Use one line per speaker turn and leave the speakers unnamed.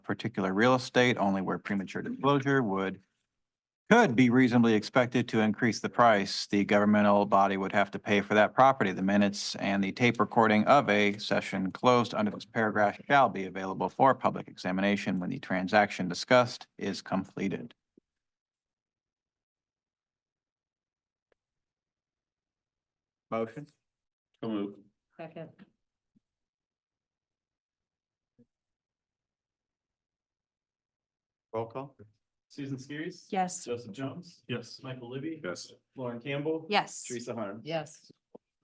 particular real estate only where premature disclosure would could be reasonably expected to increase the price the governmental body would have to pay for that property. The minutes and the tape recording of a session closed under this paragraph shall be available for public examination when the transaction discussed is completed. Motion?
So moved.
Second.
Roll call?
Susan Skiris.
Yes.
Joseph Jones. Yes. Michael Libby.
Yes.
Lauren Campbell.
Yes.
Teresa Harm.
Yes.